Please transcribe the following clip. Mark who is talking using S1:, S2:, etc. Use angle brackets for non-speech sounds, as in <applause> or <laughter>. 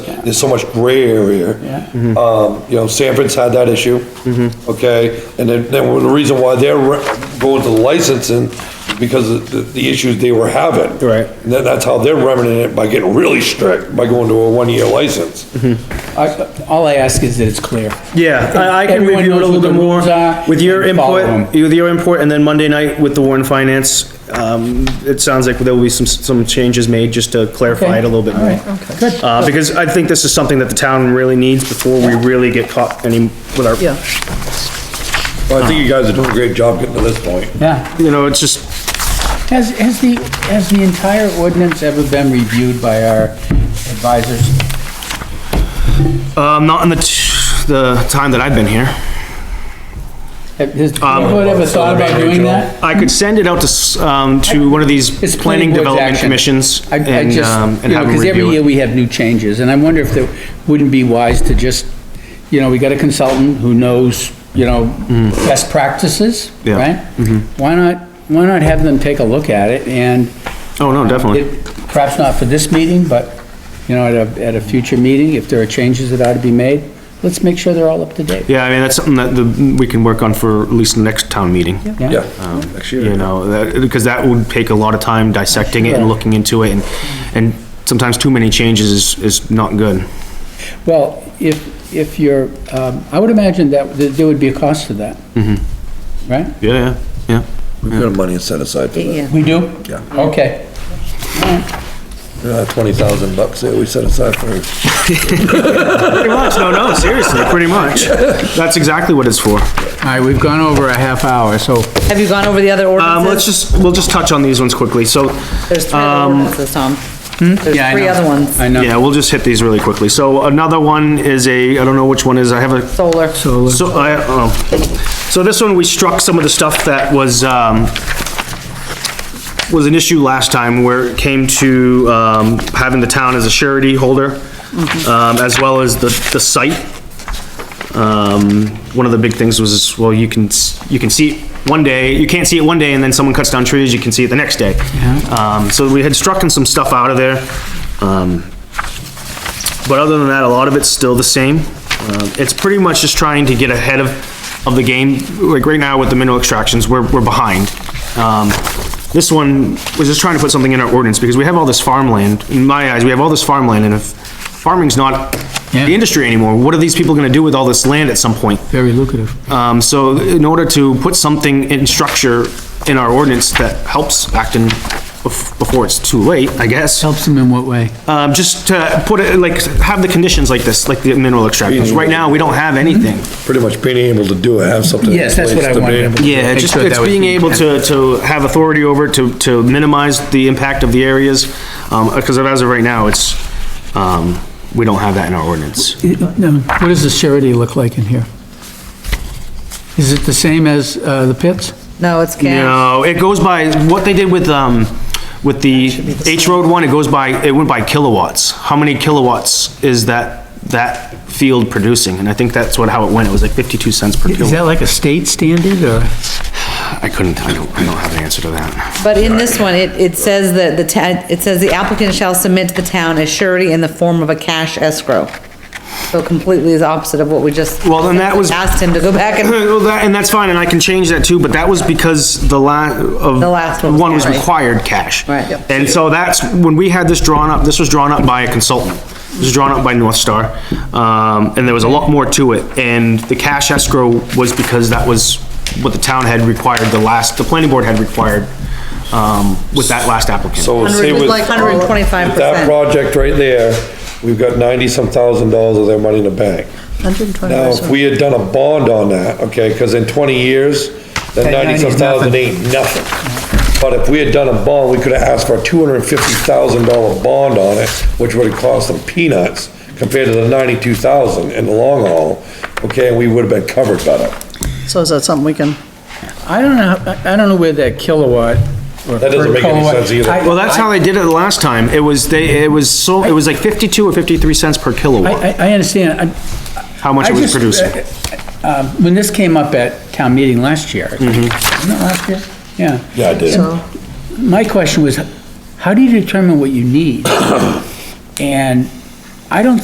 S1: there's so much gray area. Um, you know, Sanford's had that issue. Mm-hmm. Okay, and then, then the reason why they're re- going to licensing, is because of the, the issues they were having.
S2: Right.
S1: And that, that's how they're remedying it, by getting really strict, by going to a one-year license.
S3: I- All I ask is that it's clear.
S2: Yeah, I, I can
S3: Everyone
S2: review it a
S3: knows
S2: little
S3: what
S2: bit
S3: the
S2: more
S3: rules are
S2: with your
S3: and follow
S2: input, with your input, and then Monday night with the Warren Finance. Um, it sounds like there will be some, some changes made just to clarify it a little bit more.
S4: Good.
S2: Uh, because I think this is something that the town really needs before we really get caught any, with our,
S4: Yeah,
S1: Well, I think you guys are doing a great job getting to this point.
S3: Yeah.
S2: you know, it's just,
S3: Has, has the, has the entire ordinance ever been reviewed by our advisors?
S2: um, not in the, t- the time that I've been here.
S3: Have- Has the
S2: Um,
S3: board ever thought about doing that?
S2: I could send it out to, s- um, to one of these
S3: It's
S2: planning
S3: board's
S2: development
S3: action.
S2: commissions
S3: I, I
S2: and,
S3: just,
S2: um,
S3: you
S2: and
S3: know,
S2: have them
S3: because every
S2: review
S3: year
S2: it.
S3: we have new changes, and I wonder if it wouldn't be wise to just, you know, we got a consultant who knows, you know, best practices,
S2: Mm. Yeah. Mm-hmm.
S3: right? Why not, why not have them take a look at it and
S2: Oh, no, definitely.
S3: it- perhaps not for this meeting, but, you know, at a, at a future meeting, if there are changes that ought to be made, let's make sure they're all up to date.
S2: Yeah, I mean, that's something that the, we can work on for at least the next town meeting.
S1: Yeah.
S2: Um, You know, that, because that would take a lot of time dissecting it and
S3: Sure.
S2: looking into it and, and sometimes too many changes is, is not good.
S3: Well, if, if you're, um, I would imagine that th- there would be a cost to that. Right?
S2: Yeah, yeah,
S1: We've got money set aside for that.
S4: yeah.
S3: We do?
S1: Yeah.
S3: Okay.
S1: Uh, twenty thousand bucks there we set aside for,
S2: Pretty much, no, no, seriously, pretty much. That's exactly what it's for.
S3: All right, we've gone over a half hour, so
S4: Have you gone over the other
S2: Um, let's
S4: ordinances?
S2: just, um, we'll just touch on these ones quickly. So,
S4: There's three other ordinances, Tom.
S2: hmm?
S3: Yeah, I
S4: There's three
S3: know.
S4: other ones.
S3: I know.
S2: yeah, we'll just hit these really quickly. So another one is a, I don't know which one is, I have a
S4: Solar. Solar.
S2: So, I, uh, oh, so this one, we struck some of the stuff that was, um, was an issue last time where it came to, um, having the town as a surety holder, um, as well as the, the site. Um, one of the big things was, well, you can, s- you can see it one day, you can't see it one day and then someone cuts down trees, you can see it the next day. Um, so we had struck in some stuff out of there. Um, but other than that, a lot of it's still the same. Um, It's pretty much just trying to get ahead of, of the game. Like right now with the mineral extractions, we're, we're behind. Um, This one was just trying to put something in our ordinance because we have all this farmland. In my eyes, we have all this farmland and if farming's not
S3: Yeah.
S2: the industry anymore, what are these people gonna do with all this land at some point?
S3: Very lucrative.
S2: Um, so in order to put something in structure in our ordinance that helps Acton bef- before it's too late, I guess.
S3: Helps them in what way?
S2: Um, just to put it, like, have the conditions like this, like the mineral extractions. Right now, we don't have anything.
S1: pretty much being able to do it, have something. in
S3: Yes, that's
S1: place
S3: what I
S1: to be-
S3: wanted.
S2: Yeah, it's just, it's being able to, to have authority over, it, to, to minimize the impact of the areas. Um, because as of right now, it's, um, we don't have that in our ordinance.
S3: No, what does the surety look like in here? Is it the same as, uh, the pits?
S4: No, it's cash.
S2: No, it goes by, what they did with, um, with the H Road one, it goes by, it went by kilowatts. How many kilowatts is that, that field producing? And I think that's what, how it went. It was like fifty-two cents per kilowatt.
S3: Is that like a state standard, or?
S2: I couldn't, I don't, I don't have an answer to that.
S4: But in this one, it, it says that the town, it says the applicant shall submit to the town a surety in the form of a cash escrow. So completely is opposite of what we just.
S2: Well, then that was-
S4: Asked him to go back
S2: <coughs>
S4: and,
S2: Well, that, and that's fine, and I can change that too, but that was because the la, of.
S4: The last one was
S2: One was
S4: cash.
S2: required cash.
S4: Right. Yep.
S2: And so that's, when we had this drawn up, this was drawn up by a consultant. This was drawn up by North Star, um, and there was a lot more to it, and the cash escrow was because that was what the town had required, the last, the planning board had required, um, with that last applicant.
S1: So say
S4: Hundred-
S1: with.
S4: like 125%.
S1: with That project right there, we've got ninety-some thousand dollars of their money in the bank. Now, if we had done a bond on that, okay, cause in twenty years, that
S3: That 90
S1: ninety-some
S3: is
S1: thousand
S3: nothing.
S1: ain't nothing. But if we had done a bond, we could've asked for a two hundred and fifty thousand dollar bond on it, which would've cost them peanuts compared to the ninety-two thousand in the long haul, okay, and we would've been covered better.
S5: So is that something we can,
S3: I don't know, how- I I don't know where that kilowatt.
S1: That doesn't make any sense either.
S2: Well, that's how they did it the last time. It was, they, it was so, it was like fifty-two or fifty-three cents per kilowatt,
S3: I, I, I understand, I,
S2: how much
S3: I
S2: it was
S3: just,
S2: producing.
S3: uh, um, when this came up at town meeting last year, wasn't it
S2: Mm-hmm.
S3: last year? Yeah.
S1: Yeah, I did.
S3: My question was, how do you determine what you need? <coughs> And I don't